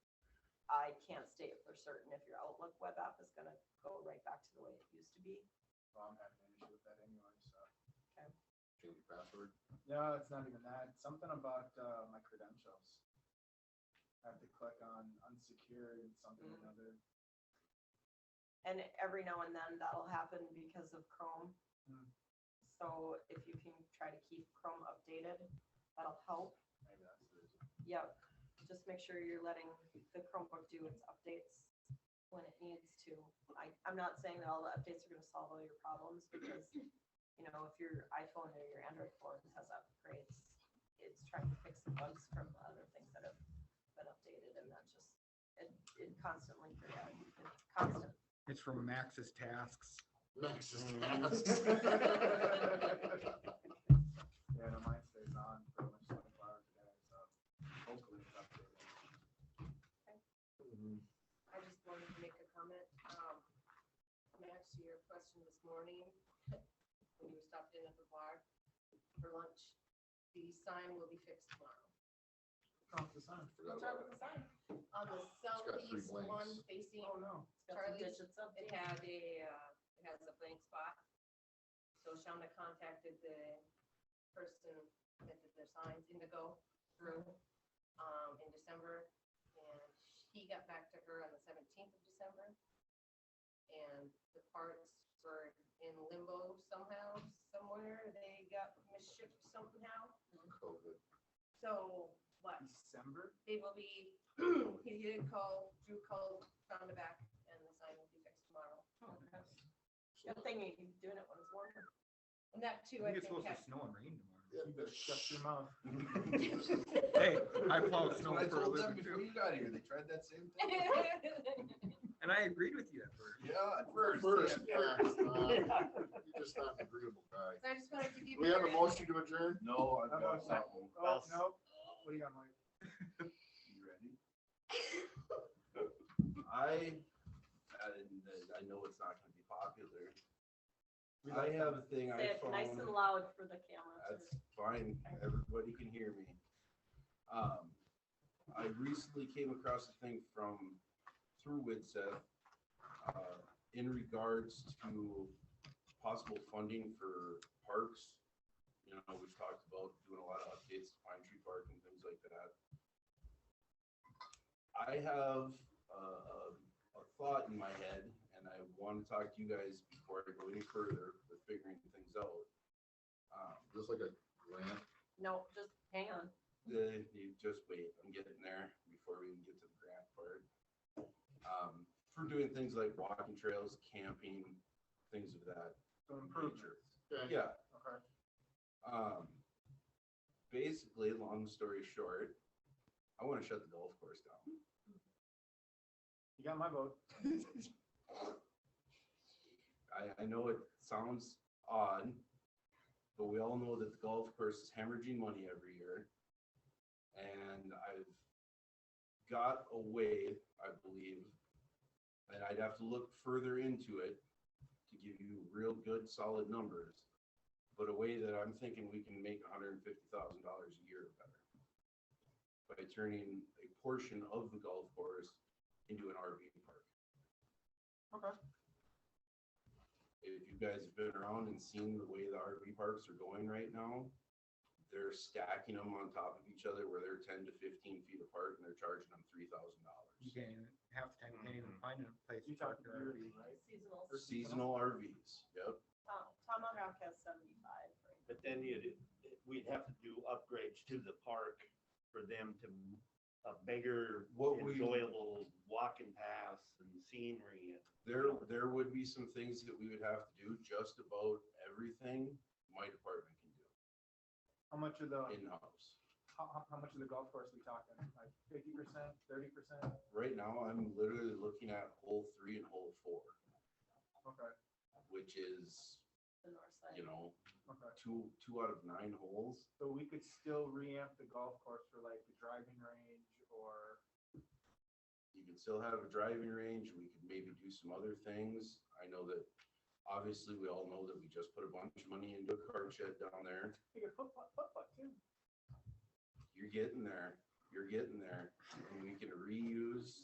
can't state for certain if your Outlook web app is gonna go right back to the way it used to be. Well, I'm having an issue with that anyway, so. Change your password. No, it's not even that. It's something about uh, my credentials. I have to click on unsecured and something or Mm. another. And every now and then that'll happen because of Chrome. Hmm. So if you can try to keep Chrome updated, that'll help. Maybe that's the reason. Yep, just make sure you're letting the Chromebook do its updates when it needs to. I, I'm not saying that all the updates are gonna solve all your problems, because, you know, if your iPhone or your Android phone has upgrades, it's trying to fix the bugs from the other things that have been updated, and that just, it, it constantly, it's constant. It's from Max's tasks. Max's Yeah, no, mine stays on for much twenty-four hours a day, so hopefully it's updated. I just wanted to make a comment. Um, Max, to your question this morning, when you stopped in at the bar for lunch, the sign will be fixed tomorrow. Oh, it's on. Forgot about it. the sign? On the got three southeast one blanks. facing Oh, no. Charlie's, it had a, uh, it has a blank spot. So Shonda contacted the person that did their signs, Indigo Drew, um, in December. And he got back to her on the seventeenth of December. And the parts were in limbo somehow, somewhere. They got misshipped somehow. COVID. So, what? December? they will be, he did call, Drew called, found it back, and the sign will be fixed tomorrow. So, thing you can do it when it's warmer. And that I too, I think it's think. supposed to has- snow and rain yeah, You better that's- shut your mouth. Hey, I plowed That's snow what I for a told them living, Before too. you got here, they tried that same thing. Well, tomorrow. And I agreed with you at first. Yeah, at first. First, yeah, yeah, it's not- uh, You're just not an agreeable guy. So I just wanted to give you. We have a guys- motion to adjourn? No, I've How about that? Oh, no. What do you got, Mike? You ready? I, I, I know it's not gonna be popular. I have a thing I found. loud for the camera. That's fine, everybody can hear me. Um, I recently came across a thing from, through WIDSEF, uh, in regards to possible funding for parks. You know, we've talked about doing a lot of updates to Pine Tree Park and things like that. I have, uh, a thought in my head, and I want to talk to you guys before I go any further with figuring things out. Um, Just like a grant, No, just hang on. the, you just wait, I'm getting there before we even get to the grant part. Um, for doing things like walking trails, camping, things of that So nature. improvements. okay, Yeah, Okay. um, basically, long story short, I wanna shut the golf course down. You got my vote. I, I know it sounds odd, but we all know that the golf course is hemorrhaging money every year. And I've got a way, I believe, and I'd have to look further into it to give you real good, solid numbers. But a way that I'm thinking we can make hundred and fifty thousand dollars a year or better. By turning a portion of the golf course into an RV park Okay. if you guys have been around and seen the way the RV parks are going right now, they're stacking them on top of each other where they're ten to fifteen feet apart and they're charging them three thousand dollars. You can't even, half the time, you can't even find a place. You to park talked your RV. yearly, right? Seasonal. For seasonal RVs, yep. Tomahawk has seventy-five. But then you'd, we'd have to do upgrades to the park for them to, a bigger What we- enjoyable walking paths and scenery. and- There, there would be some things that we would have to do, just about everything my department can do How much of the, in-house. how, how- how much of the golf course we talking? Like fifty percent, thirty percent? Right now, I'm literally looking at hole three and hole four, Okay, which is, The north you know, okay. two, two out of nine holes. So we could still reamp the golf course for like the driving range or, you can still have a driving range, we could maybe do some other things. I know that, obviously, we all know that we just put a bunch of money into a card shed down there. you could put, put, put, put too. You're getting there, you're getting there, and we can reuse